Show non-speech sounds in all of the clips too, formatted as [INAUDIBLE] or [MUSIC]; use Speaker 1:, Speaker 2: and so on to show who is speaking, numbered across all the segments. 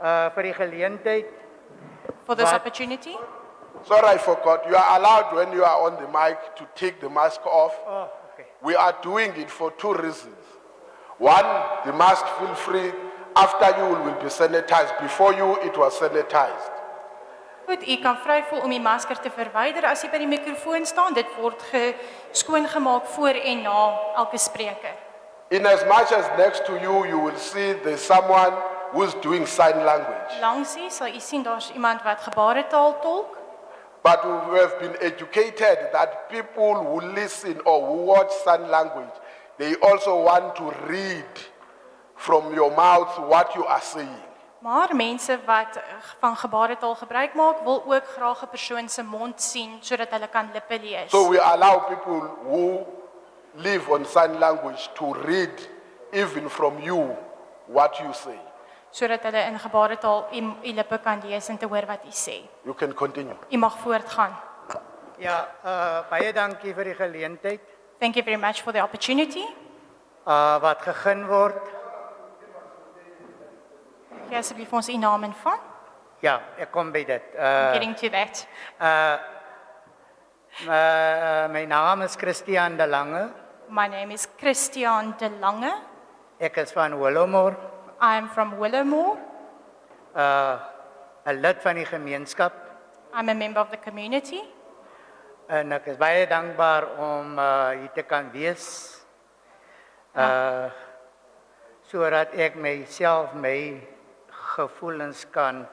Speaker 1: uh vir die geleentheid.
Speaker 2: for this
Speaker 1: But-
Speaker 2: opportunity.
Speaker 3: Sorry, I forgot. You are allowed when you are on the mic to take the mask off.
Speaker 1: Oh, okay.
Speaker 3: We are doing it for two reasons. One, the mask feel free. After you will be sanitized. Before you, it was sanitized.
Speaker 2: Goed, u kan vry voel om die masker te verwyder as u by die mikrofoon staan. Dit word ge skoongemaak voor en na elke spreker.
Speaker 3: In as much as next to you, you will see there's someone who's doing sign language.
Speaker 2: Langs u sal u sien daar's iemand wat gebaretaal tolk,
Speaker 3: But we have been educated that people who listen or who watch sign language, they also want to read from your mouth what you are saying.
Speaker 2: maar mense wat eh, van gebaretaal gebruik maak, wil ook graag 'n persoon se mond sien sodat hulle kan lippe lees.
Speaker 3: So we allow people who live on sign language to read even from you what you say.
Speaker 2: sodat hulle in gebaretaal u u lippe kan lees en te hoor wat u sê.
Speaker 3: You can continue.
Speaker 2: U mag voortgaan.
Speaker 1: Ja, uh baie dankie vir die geleentheid
Speaker 2: Thank you very much for the opportunity.
Speaker 1: uh wat gegee word.
Speaker 2: Gee asseblief vir ons u naam en van.
Speaker 1: Ja, ek kom by dit.
Speaker 3: Eh,
Speaker 1: Uh
Speaker 2: Getting to that.
Speaker 1: uh my naam is Christian de Lange.
Speaker 2: My name is Christian De Lange.
Speaker 1: Ek is van Willowmore,
Speaker 2: I am from Willowmore.
Speaker 1: uh 'n lid van die gemeenskap
Speaker 2: I'm a member of the community.
Speaker 1: en ek is baie dankbaar om uh hier te kan wees. Uh sodat ek myself my gevoelens kan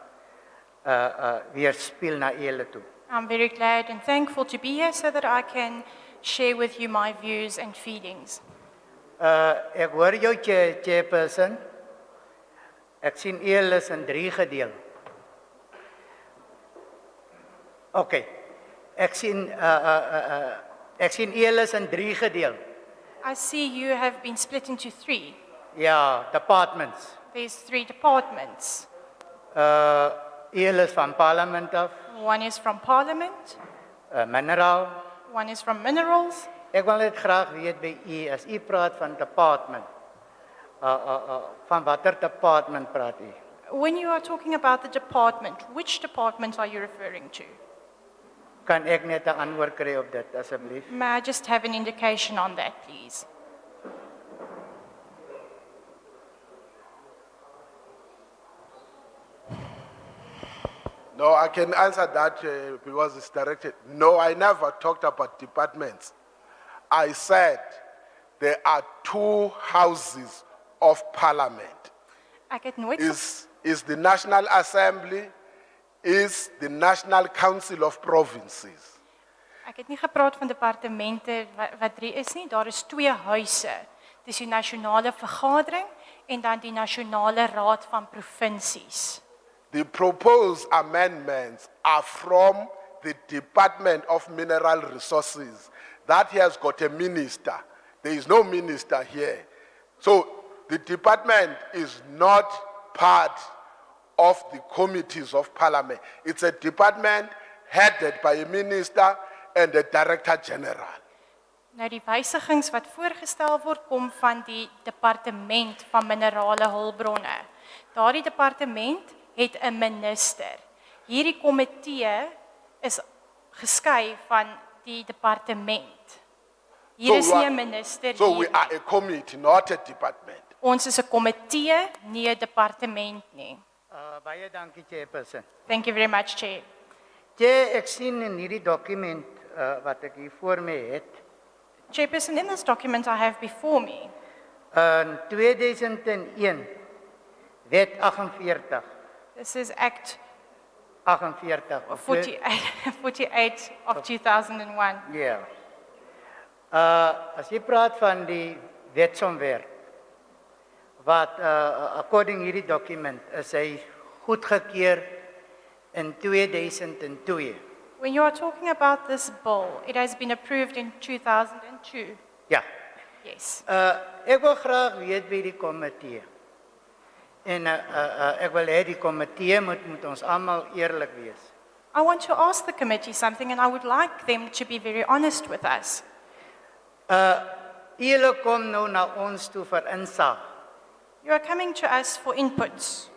Speaker 1: uh uh weerspieël na julle toe.
Speaker 2: I'm very glad and thankful to be here so that I can share with you my views and feelings.
Speaker 1: Uh ek hoor jou chair- chairperson. Ek sien eel is in 3 gedeel. OK. Ek sien uh uh uh, uh ek sien eel is in 3 gedeel.
Speaker 2: I see you have been split into three.
Speaker 1: Ja, departments.
Speaker 2: There's three departments.
Speaker 1: Uh eel is van parlement af,
Speaker 2: One is from Parliament,
Speaker 1: uh, mineral.
Speaker 2: one is from Minerals.
Speaker 1: Ek wil net graag weet by u as u praat van department. Uh uh uh van watter department praat u?
Speaker 2: When you are talking about the department, which department are you referring to?
Speaker 1: Kan ek net 'n antwoord kry op dit asseblief?
Speaker 2: May I just have an indication on that, please?
Speaker 3: No, I can answer that uh, because it's directed. No, I never talked about departments. I said there are two houses of parliament.
Speaker 2: Ek het nooit
Speaker 3: Is is the National Assembly, is the National Council of Provinces.
Speaker 2: Ek het nie gepraat van departemente wat, wat drie is nie, daar is twee huise. Dis die nasionale vergadering en dan die nasionale raad van provinsies.
Speaker 3: The proposed amendments are from the Department of Mineral Resources. That has got a minister. There is no minister here. So the department is not part of the committees of parliament. It's a department headed by a minister and a director general.
Speaker 2: Nou die wysigings wat voorgestel word kom van die departement van minerale hulpbronne. Daardie departement het 'n minister. Hierdie komitee is geskei van die departement. Hier
Speaker 3: So
Speaker 2: is
Speaker 3: we
Speaker 2: nie
Speaker 3: are-
Speaker 2: 'n minister
Speaker 3: So
Speaker 2: hier
Speaker 3: we
Speaker 2: nie.
Speaker 3: are a committee, not a department.
Speaker 2: Ons is 'n komitee, nie 'n departement nie.
Speaker 1: Uh baie dankie chairperson.
Speaker 2: Thank you very much, Chair.
Speaker 1: Jy ek sien in hierdie dokument uh, wat ek hier voor my het,
Speaker 2: Chairperson, in this document I have before me,
Speaker 1: in 2001 wet 48
Speaker 2: this is Act
Speaker 1: 48 of
Speaker 2: 48, [LAUGHS] 48 of 2001.
Speaker 1: Ja. Uh as jy praat van die wetsontwerp wat uh according hierdie dokument is hy goedgekeur in 2002.
Speaker 2: When you are talking about this bill, it has been approved in 2002.
Speaker 1: Ja.
Speaker 2: Yes.
Speaker 1: Uh ek wil graag weet by die komitee. En uh, uh, uh ek wil hê die komitee moet met ons almal eerlik wees.
Speaker 2: I want to ask the committee something, and I would like them to be very honest with us.
Speaker 1: Julle kom nou na ons toe vir insaag.
Speaker 2: You are coming to us for inputs.